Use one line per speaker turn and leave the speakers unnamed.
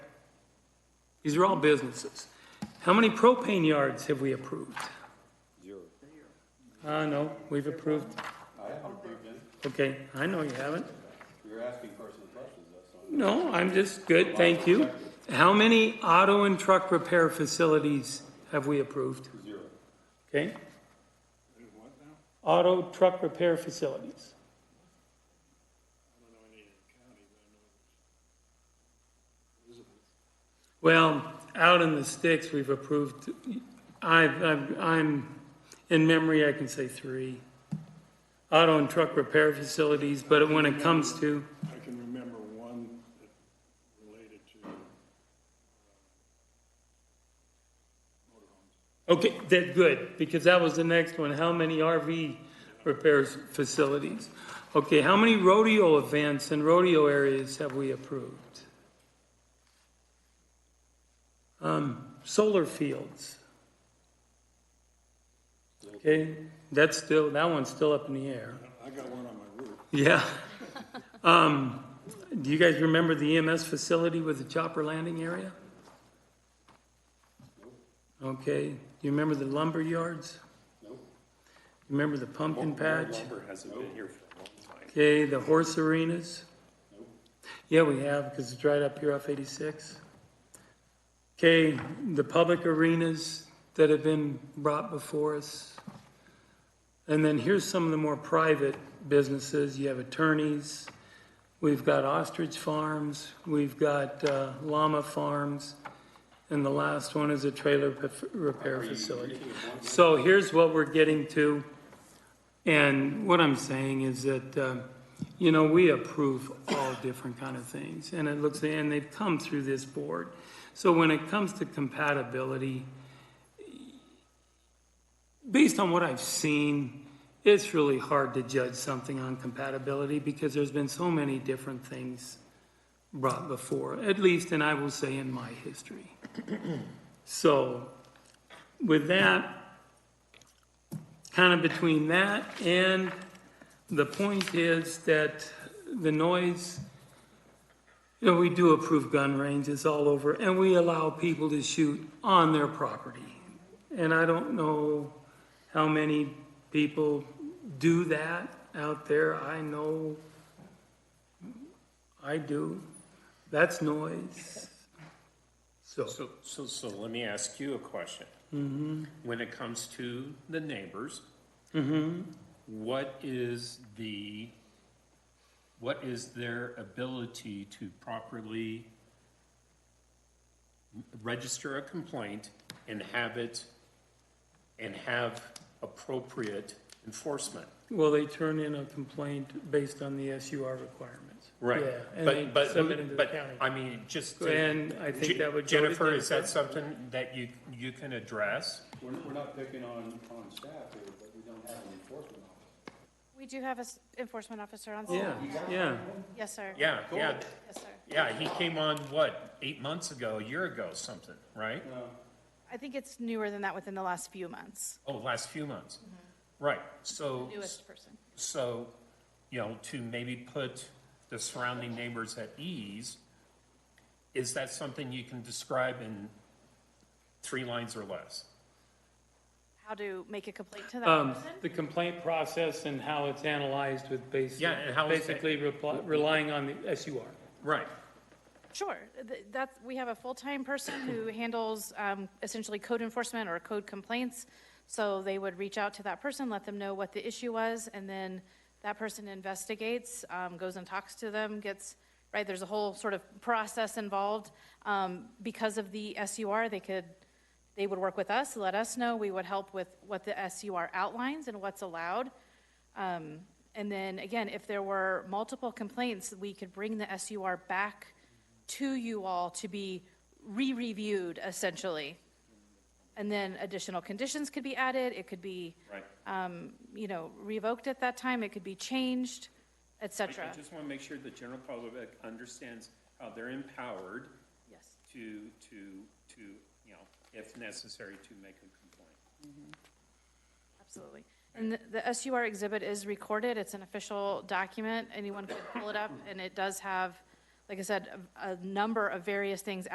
These are all businesses. How many propane yards have we approved? Zero. Uh, no, we've approved. Okay, I know you haven't.
You're asking personal questions, that's all.
No, I'm just good, thank you. How many auto and truck repair facilities have we approved? Zero. Okay? Auto truck repair facilities. Well, out in the sticks, we've approved, I, I'm- I'm, in memory, I can say three. Auto and truck repair facilities, but when it comes to.
I can remember one that related to,
Okay, that, good, because that was the next one, how many RV repairs facilities? Okay, how many rodeo events and rodeo areas have we approved? Um, solar fields. Okay, that's still, that one's still up in the air,
I got one on my roof.
yeah. Um, do you guys remember the EMS facility with the chopper landing area? Okay, do you remember the lumber yards?
Nope.
Remember the pumpkin patch?
Lumber hasn't been here for a long time.
Okay, the horse arenas? Yeah, we have, because it's right up here off 86. Okay, the public arenas that have been brought before us. And then here's some of the more private businesses. You have attorneys. We've got ostrich farms. We've got uh, llama farms. And the last one is a trailer p- repair facility. So here's what we're getting to. And what I'm saying is that, uh, you know, we approve all different kind of things, and it looks, and they've come through this board. So when it comes to compatibility, based on what I've seen, it's really hard to judge something on compatibility because there's been so many different things brought before, at least, and I will say in my history. So with that, kind of between that and the point is that the noise, you know, we do approve gun ranges all over and we allow people to shoot on their property. And I don't know how many people do that out there. I know I do. That's noise. So,
So, so, so let me ask you a question. When it comes to the neighbors, what is the, what is their ability to properly register a complaint and have it, and have appropriate enforcement?
well, they turn in a complaint based on the SUR requirements.
Right,
Yeah, and they
but, but,
submit it to the
but,
county.
I mean, just. to-
And I think
Je-
that would go to
Jennifer, is
Jennifer.
that something that you, you can address?
We're, we're not picking on, on staff here, but we don't have an enforcement officer.
We do have an enforcement officer on
Yeah,
staff.
yeah.
Yes, sir.
Yeah, yeah,
Yes, sir.
yeah, he came on, what, eight months ago, a year ago, something, right?
I think it's newer than that within the last few months,
Oh, last few months.
Mm-hmm.
Right, so,
newest person.
so, you know, to maybe put the surrounding neighbors at ease, is that something you can describe in three lines or less?
How to make a complaint to that
Um,
person?
the complaint process and how it's analyzed with base.
Yeah, and how it's-
Basically repli- relying on the SUR.
Right,
Sure, Th- that's, we have a full-time person who handles um, essentially code enforcement or code complaints. So they would reach out to that person, let them know what the issue was, and then that person investigates, um, goes and talks to them, gets, right, there's a whole sort of process involved. Um, Because of the SUR, they could, they would work with us, let us know, we would help with what the SUR outlines and what's allowed. Um, And then again, if there were multiple complaints, we could bring the SUR back to you all to be re-reviewed essentially. And then additional conditions could be added, it could be,
right.
you know, revoked at that time, it could be changed, et
I-
cetera.
I just want to make sure the general public understands how they're empowered
Yes.
to, to, to, you know, if necessary, to make a complaint.
Absolutely. And the- the SUR exhibit is recorded, it's an official document, anyone could pull it up, and it does have, like I said, a a number of various things